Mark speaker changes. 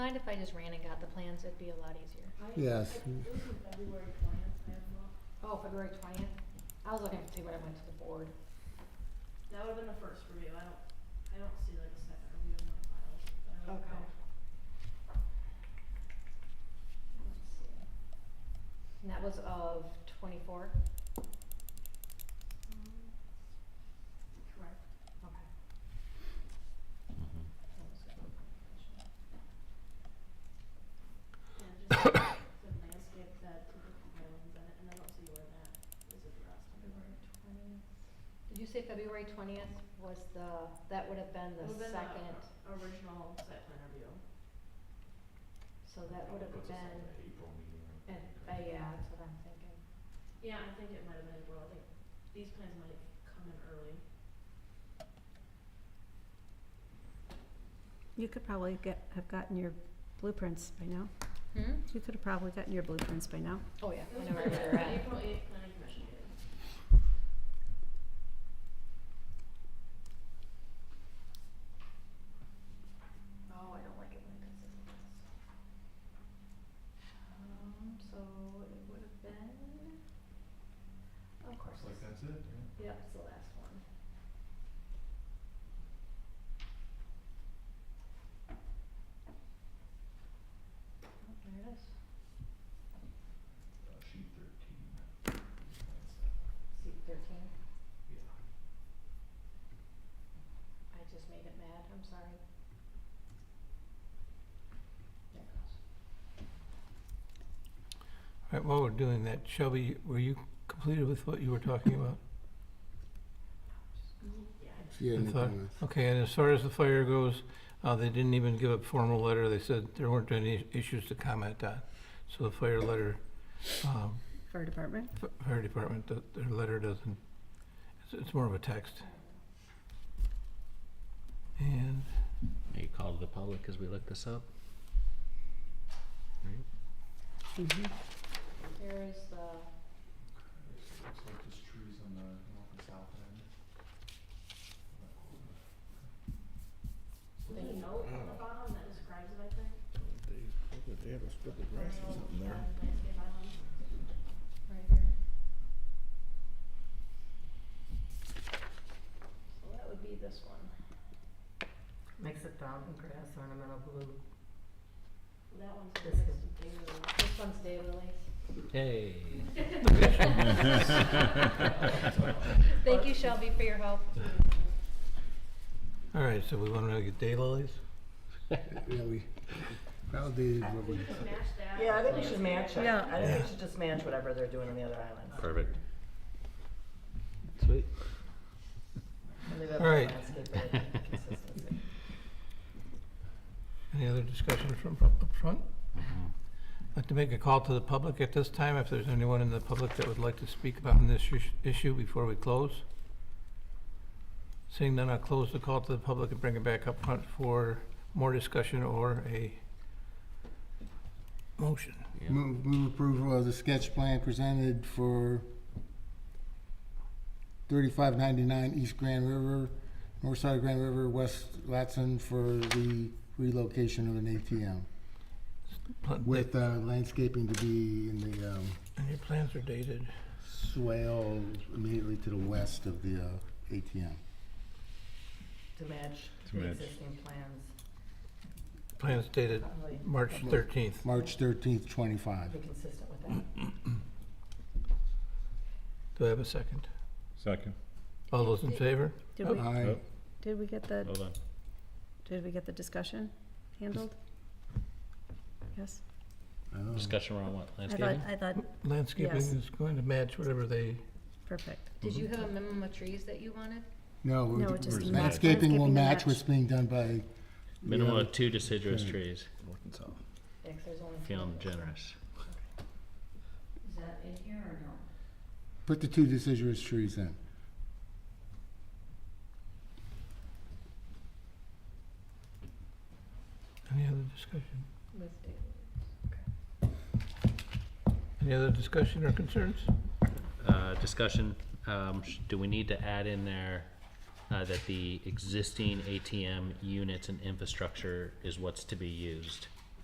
Speaker 1: mind if I just ran and got the plans? It'd be a lot easier.
Speaker 2: Yes.
Speaker 1: Oh, February twentieth? I was looking to see what I went to the board.
Speaker 3: That would've been the first review, I don't, I don't see like a second review in my files, but I don't
Speaker 1: Okay.
Speaker 3: know. Let's see.
Speaker 1: And that was of twenty-four?
Speaker 3: Um, Correct.
Speaker 1: Okay.
Speaker 3: That was good information. And just the landscape bed, typical islands in it, and I don't see where that is addressed. February twentieth.
Speaker 1: Did you say February twentieth was the, that would have been the second,
Speaker 3: Original site plan review.
Speaker 1: so that would have
Speaker 4: Puts us at
Speaker 1: been,
Speaker 4: the April meeting.
Speaker 1: and, uh, yeah, that's what I'm thinking.
Speaker 3: Yeah, I think it might have been, well, I think these plans might have come in early.
Speaker 5: You could probably get, have gotten your blueprints by now.
Speaker 1: Hmm?
Speaker 5: You could have probably gotten your blueprints by now.
Speaker 1: Oh, yeah,
Speaker 3: It was
Speaker 1: whenever I read
Speaker 3: planned for
Speaker 1: it.
Speaker 3: April eighth planning commission meeting.
Speaker 1: Oh, I don't like it when it comes in this. Um, so it would have been, of course,
Speaker 4: Looks like that's it, yeah.
Speaker 1: yep, it's the last one. Oh, there it is.
Speaker 4: Uh, sheet thirteen.
Speaker 1: Seat thirteen.
Speaker 4: Yeah.
Speaker 1: I just made it mad, I'm sorry. There it goes.
Speaker 6: All right, while we're doing that, Shelby, were you completed with what you were talking about?
Speaker 3: Yeah, I
Speaker 2: She had any
Speaker 6: I thought-
Speaker 2: comments?
Speaker 6: Okay, and as far as the fire goes, uh, they didn't even give a formal letter. They said there weren't any issues to comment on. So the fire letter, um,
Speaker 5: Fire department?
Speaker 6: f- fire department, th- their letter doesn't, it's, it's more of a text. And
Speaker 7: Make a call to the public as we look this up. Right?
Speaker 5: Mm-hmm.
Speaker 1: Here is the,
Speaker 4: It Looks like just trees on the north and south end.
Speaker 3: There's a note on the bottom that describes it, I think. Yeah, landscape islands.
Speaker 1: right here. So that would be this one.
Speaker 8: Makes it dog grass ornamental blue.
Speaker 3: That one's
Speaker 8: This
Speaker 3: next
Speaker 8: is-
Speaker 3: to David Lee.
Speaker 1: This one's David Lee.
Speaker 7: Hey.
Speaker 1: Thank you Shelby for your help.
Speaker 6: all right, so we want to get daylilies.
Speaker 2: Yeah, we validated what we.
Speaker 3: You can match that.
Speaker 8: Yeah, I think we
Speaker 3: with
Speaker 8: should match it.
Speaker 5: Yeah.
Speaker 8: I think
Speaker 6: Yeah.
Speaker 8: we should just match whatever they're doing on the other islands.
Speaker 7: Perfect. Sweet.
Speaker 8: And leave it with
Speaker 6: Right.
Speaker 8: landscape related consistency.
Speaker 6: Any other discussions from up front? I'd like to make a call to the public at this time, if there's anyone in the public that would like to speak about this ish- issue before we close. Seeing none, I'll close the call to the public and bring it back up front for more discussion or a motion.
Speaker 7: Yeah.
Speaker 2: Move, move approval of the sketch plan presented for thirty-five ninety-nine East Grand River, north side of Grand River, west Latson for the relocation of an ATM
Speaker 6: Pla-
Speaker 2: with uh, landscaping to be in the um,
Speaker 6: And your plans are dated.
Speaker 2: swale immediately to the west of the uh, ATM.
Speaker 8: To match
Speaker 4: To
Speaker 8: the
Speaker 4: match.
Speaker 8: existing plans.
Speaker 6: Plans dated
Speaker 8: Probably
Speaker 6: March thirteenth.
Speaker 2: March thirteenth, twenty-five.
Speaker 8: Be consistent with that.
Speaker 6: Do I have a second?
Speaker 4: Second,
Speaker 6: All those in favor?
Speaker 5: Did
Speaker 6: Oh.
Speaker 5: we,
Speaker 2: Aye.
Speaker 5: did we get the,
Speaker 4: on.
Speaker 5: did we get the discussion handled? Yes?
Speaker 2: Oh.
Speaker 7: Discussion around what,
Speaker 5: I thought,
Speaker 7: landscaping?
Speaker 5: I thought,
Speaker 6: Landscaping
Speaker 5: Uh, Yes.
Speaker 6: is going to match whatever they,
Speaker 5: perfect.
Speaker 1: Did you have a minimum of trees that you wanted?
Speaker 2: No, we're-
Speaker 5: No, it just
Speaker 2: we're-
Speaker 5: matched.
Speaker 2: landscaping will
Speaker 5: Landscaping
Speaker 2: match
Speaker 5: matched.
Speaker 2: what's being done by. the
Speaker 7: Minimum
Speaker 2: other-
Speaker 7: of two deciduous
Speaker 2: Okay.
Speaker 7: trees,
Speaker 1: Yeah, 'cause there's only.
Speaker 7: feeling
Speaker 1: four.
Speaker 7: generous.
Speaker 3: Is that in here or no?
Speaker 2: Put the two deciduous trees in.
Speaker 6: any other discussion?
Speaker 1: With David.
Speaker 6: Any other discussion or concerns?
Speaker 7: Uh, discussion, um, sh- do we need to add in there, uh, that the existing ATM units and infrastructure is what's to be used?